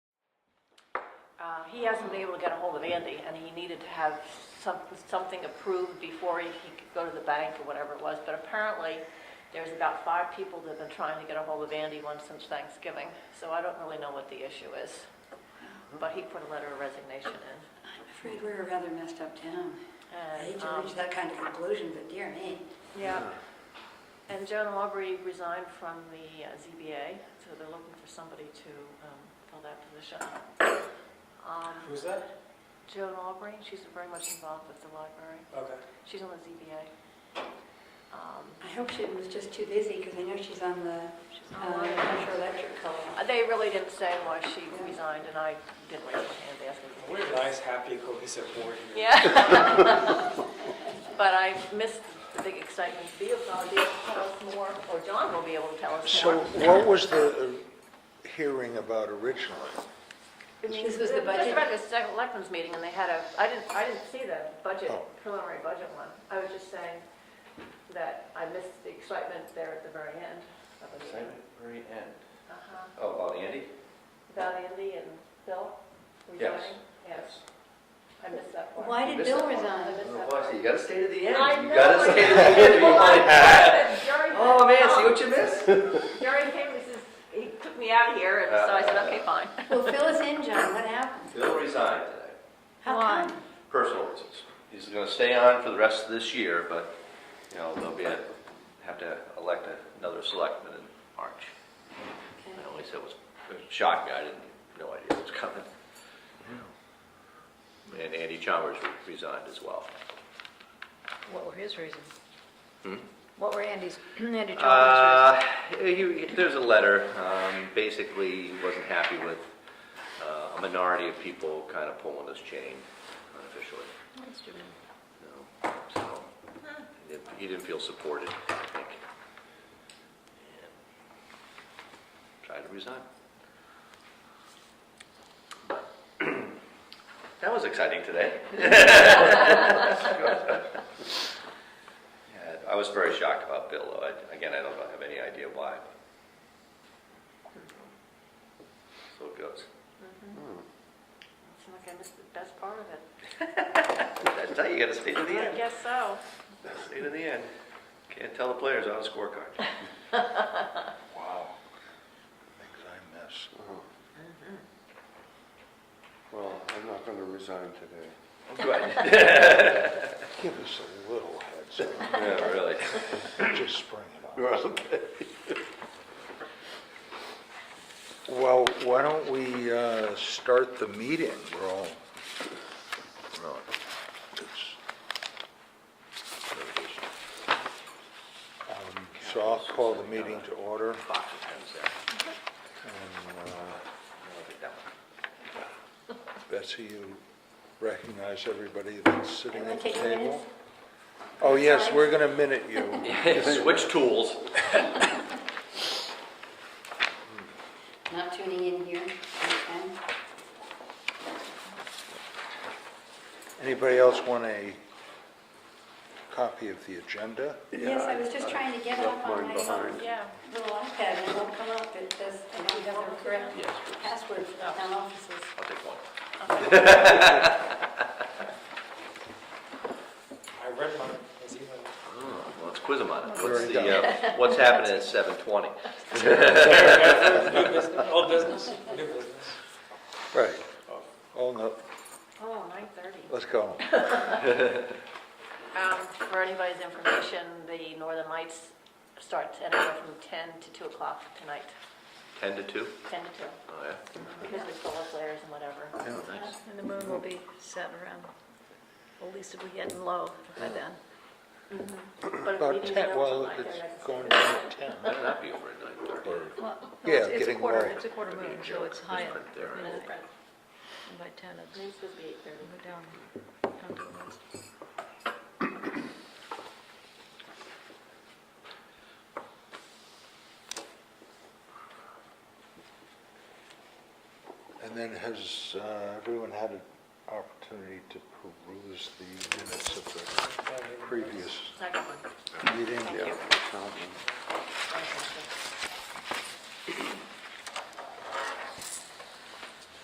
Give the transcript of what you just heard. Uh, He hasn't been able to get a hold of Andy, and he needed to have some, something approved before he he could go to the bank or whatever it was. But apparently, there's about five people that have been trying to get a hold of Andy once since Thanksgiving, so I don't really know what the issue is. But he put a letter of resignation in. I'm afraid we're a rather messed up town. I and, hate to um, reach that kind of conclusion, but dear me. Yeah, and Joan Aubrey resigned from the uh, ZBA, so they're looking for somebody to um, fill that position. Um, Who's that? Joan Aubrey, she's very much involved with the library. Okay. She's on the ZBA. Um, I hope she was just too busy because I know she's on the she's on uh, the- Metro Electric call. Uh, They really didn't say why she resigned, and I didn't raise my hand to ask them. We're a nice, happy, cohesive board here. Yeah. But I missed the big excitement. Thea will probably be able to tell us more, or John will be able to tell us So more. what was the uh, hearing about originally? This was the Just budget? about the second elections meeting, and they had a, I didn't, I didn't see the budget, Oh. preliminary budget one. I was just saying that I missed the excitement there at the very end of the meeting. Excitement, very end. Uh-huh. Oh, about Andy? About Andy and Bill Yes. resigning? Yes. I missed that part. Why did Missed Bill that one. resign? I missed that Watch, part. it, Oh, you gotta stay to the end. I You know, gotta I stay to the end. You Well, I wanna- said, Jerry- Oh, man, see what you missed? Jerry came, he says, he took me out of here, and so I Uh, said, okay, fine. Well, fill us in, John, what happened? Bill resigned today, How Why? come? personal reasons. He's gonna stay on for the rest of this year, but, you know, they'll be, a- have to elect another selectman in March. I only said was, it shocked me, I didn't, no idea it was coming. And Andy Chalmers resigned as well. What were his reasons? Hmm? What were Andy's, Andy Chalmers' Uh, he- There's a letter, um, basically he wasn't happy with uh, a minority of people kind of pulling his chain unofficially, reasons? That's stupid. you know, so he didn't- he didn't feel supported, I think. And Tried to resign. But That was exciting today. Yeah, I was very shocked about Bill, though. I- Again, I don't have any idea why. but- So it goes. It's like I missed the best part of it. I tell you, you gotta stay to the I end. guess so. Stay to the end. Can't tell the players on a scorecard. Wow. Things I miss. Well, I'm not going to resign today. Right. Give us a little heads Yeah, really. up, just spring it up. Well, Well, why don't we uh, start the meeting? We're all, we're all- it's- there it is. Um, So I'll call the meeting to order. Box of pens there. and, uh, Look at that one. Betsy, you recognize everybody that's sitting Am I at the taking table? minutes? Oh, yes, we're going to minute you. Switch tools. Uh, Not tuning in here? Okay. Anybody else want a copy of the agenda? Yes, I was just trying to get up on mine my behind. little Yeah. iPad and it won't come up. It does, I don't have the correct Yes, please. password for the town offices. I'll take one. I read mine, I was even- Oh, Well, let's quiz them on it. What's Very the, uh, what's happening at 7:20? New business, old business, new business. Right. Oh, no, Oh, 9:30. let's go. Um, For anybody's information, the Northern Lights starts anywhere from 10 to 2 o'clock tonight, 10 to 2? 10 to Oh, yeah. 2, because we pull up layers and whatever. Yeah. Nice. And the moon will be setting around, at least it'll be getting low by then. But if About meetings 10, go well, till if it's 9:30, going down at 10. Might not be over at 9:30. Well, Yeah, it's- it's a getting quarter, low. it's a quarter moon, so it's high at print there. midnight. Right. And by 10, it's Meeting's supposed to be 8:30. go down, down to the west. And then has uh, everyone had an opportunity to peruse the minutes of the previous Second one. meeting? Thank you. Um, Okay, so-